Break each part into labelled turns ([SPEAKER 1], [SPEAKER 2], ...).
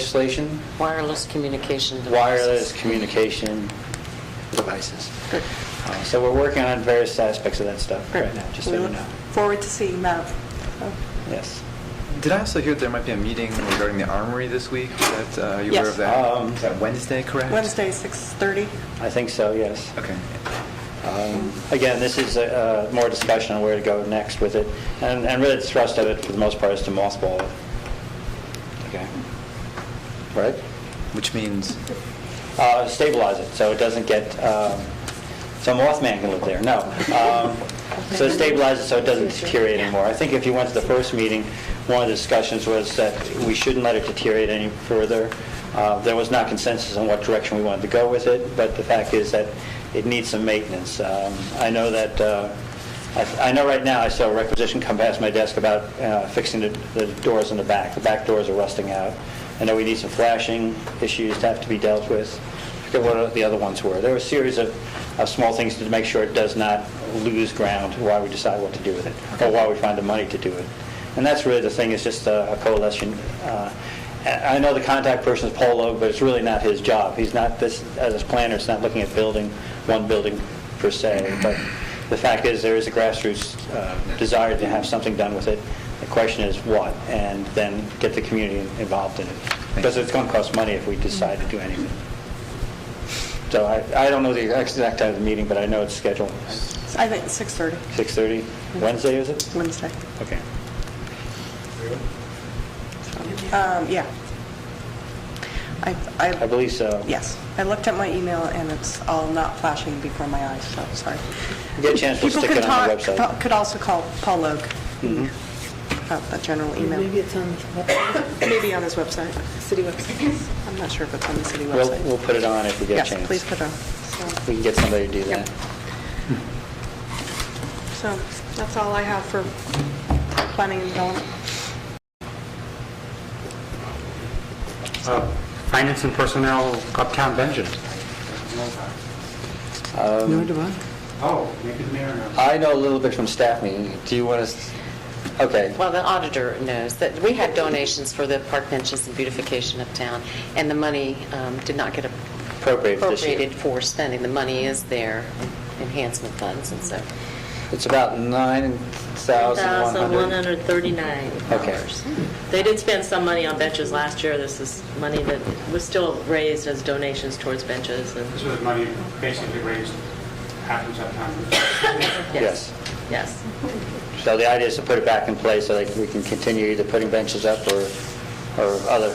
[SPEAKER 1] legislation,
[SPEAKER 2] Wireless communication devices.
[SPEAKER 1] wireless communication devices. Uh, So we're working on various aspects of that stuff right now, just so
[SPEAKER 3] We
[SPEAKER 1] you
[SPEAKER 3] look
[SPEAKER 1] know.
[SPEAKER 3] Forward to seeing that.
[SPEAKER 1] Yes.
[SPEAKER 4] Did I also hear there might be a meeting regarding the armory this week? Is That, uh, you aware
[SPEAKER 3] Yes.
[SPEAKER 4] of that?
[SPEAKER 1] Um,
[SPEAKER 4] Is that Wednesday, correct?
[SPEAKER 3] Wednesday, 6:30.
[SPEAKER 1] I think so, yes.
[SPEAKER 4] Okay.
[SPEAKER 1] Um, Again, this is uh, more discussion on where to go next with it, and and really the thrust of it, for the most part, is to mothball it. Okay. Right?
[SPEAKER 4] Which means,
[SPEAKER 1] Uh, Stabilize it, so it doesn't get, um, so Mothman can live there, no. Um, So stabilize it so it doesn't deteriorate anymore. I think if you went to the first meeting, one of the discussions was that we shouldn't let it deteriorate any further. Uh, There was not consensus on what direction we wanted to go with it, but the fact is that it needs some maintenance. Um, I know that, uh, I I know right now, I saw a requisition come past my desk about uh, fixing the- the doors in the back. The back doors are rusting out. I know we need some flashing issues to have to be dealt with. I forget what the other ones were. There were a series of, of small things to make sure it does not lose ground while we decide what to do with it, or while we find the money to do it. And that's really the thing, it's just a a coalition. Uh, I I know the contact person is Polo, but it's really not his job. He's not, this, as a planner, it's not looking at building, one building per se, but the fact is, there is a grassroots uh, desire to have something done with it. The question is what, and then get the community involved in it. Because it's going to cost money if we decide to do anything. So I, I don't know the exact time of the meeting, but I know it's scheduled
[SPEAKER 3] I think 6:30,
[SPEAKER 1] 6:30, Wednesday, is it?
[SPEAKER 3] Wednesday.
[SPEAKER 1] Okay.
[SPEAKER 3] Um, Yeah. I,
[SPEAKER 1] I
[SPEAKER 3] I,
[SPEAKER 1] believe so.
[SPEAKER 3] yes, I looked at my email and it's all not flashing before my eyes, so sorry.
[SPEAKER 1] Get a chance, we'll
[SPEAKER 3] People
[SPEAKER 1] stick
[SPEAKER 3] could
[SPEAKER 1] it on the
[SPEAKER 3] talk-
[SPEAKER 1] website. Mm-hmm.
[SPEAKER 3] Could also call Paul Logue, about the general email,
[SPEAKER 5] Maybe it's on the
[SPEAKER 3] maybe on his website.
[SPEAKER 5] city website.
[SPEAKER 3] I'm not sure if it's on the city
[SPEAKER 1] We'll,
[SPEAKER 3] website.
[SPEAKER 1] we'll put it on if we get a
[SPEAKER 3] Yes,
[SPEAKER 1] chance.
[SPEAKER 3] please put it on.
[SPEAKER 1] We can get somebody to do
[SPEAKER 3] Yep.
[SPEAKER 1] that.
[SPEAKER 3] So that's all I have for planning and development.
[SPEAKER 6] Uh, Finance and Personnel, Uptown Benjamin.
[SPEAKER 5] Nor do I.
[SPEAKER 6] Um, Oh, you could mayor now.
[SPEAKER 1] I know a little bit from staff meeting. Do you want us, okay.
[SPEAKER 2] Well, the auditor knows that we had donations for the park benches and beautification of town, and the money um, did not get
[SPEAKER 1] Appropriated this year.
[SPEAKER 2] appropriated for spending. The money is there, enhancement funds and so.
[SPEAKER 1] It's about 9,100. Okay.
[SPEAKER 5] dollars. They did spend some money on benches last year. This is money that was still raised as donations towards benches and,
[SPEAKER 6] This was money basically raised, happens uptown.
[SPEAKER 1] Yes.
[SPEAKER 5] yes.
[SPEAKER 1] So the idea is to put it back in place so that we can continue either putting benches up or, or other,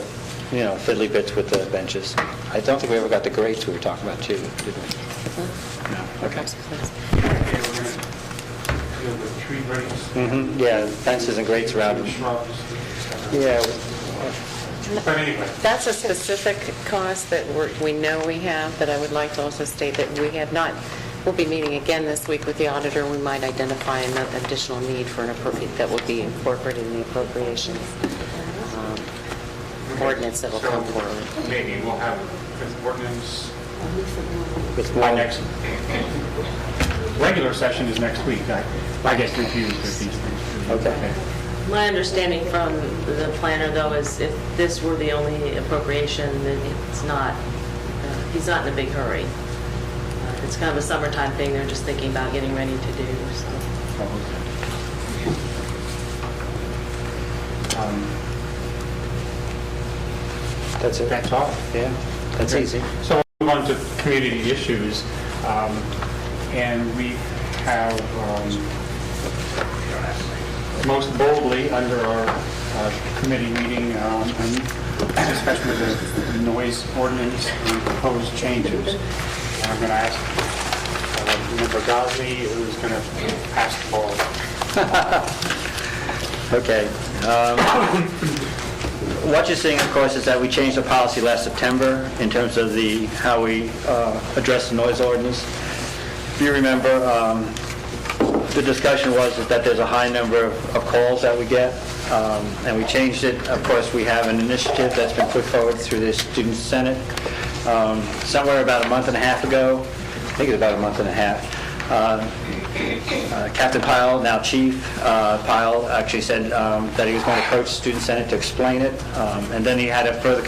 [SPEAKER 1] you know, fiddly bits with the benches. I don't think we ever got the grates we were talking about too, did we? Okay.
[SPEAKER 6] They were gonna deal with tree breaks,
[SPEAKER 1] Mhm, Yeah, fences and grates around.
[SPEAKER 6] Mm-hmm, and
[SPEAKER 1] them.
[SPEAKER 6] shrubs.
[SPEAKER 1] Yeah,
[SPEAKER 6] But anyway,
[SPEAKER 2] That's a specific cost that we're- we know we have, but I would like to also state that we have not, we'll be meeting again this week with the auditor, we might identify an additional need for an appropriate, that will be incorporated in the appropriations um, ordinance that will
[SPEAKER 6] so
[SPEAKER 2] come forward.
[SPEAKER 6] maybe we'll have an ordinance,
[SPEAKER 1] with
[SPEAKER 6] my
[SPEAKER 1] more-
[SPEAKER 6] next, regular session is next week. I I get confused with these things.
[SPEAKER 1] Okay.
[SPEAKER 5] My understanding from the planner, though, is if this were the only appropriation, then it's not, uh, he's not in a big hurry. Uh, It's kind of a summertime thing, they're just thinking about getting ready to do, so.
[SPEAKER 6] Um,
[SPEAKER 1] That's it.
[SPEAKER 6] That's all.
[SPEAKER 1] Yeah, that's easy.
[SPEAKER 6] So we'll move on to community issues, um, and we have um, most boldly under our uh, committee meeting, um, a discussion of the noise ordinance and proposed changes. And I'm going to ask uh, Member Gosley, who's going to pass the ball.
[SPEAKER 1] Okay. um, What you're seeing, of course, is that we changed the policy last September in terms of the, how we uh, address the noise ordinance. If you remember, um, the discussion was is that there's a high number of of calls that we get, um, and we changed it. Of course, we have an initiative that's been put forward through the Student Senate um, somewhere about a month and a half ago, I think it was about a month and a half. uh, uh, Captain Pyle, now Chief uh, Pyle, actually said um, that he was going to approach Student Senate to explain it, um, and then he had a further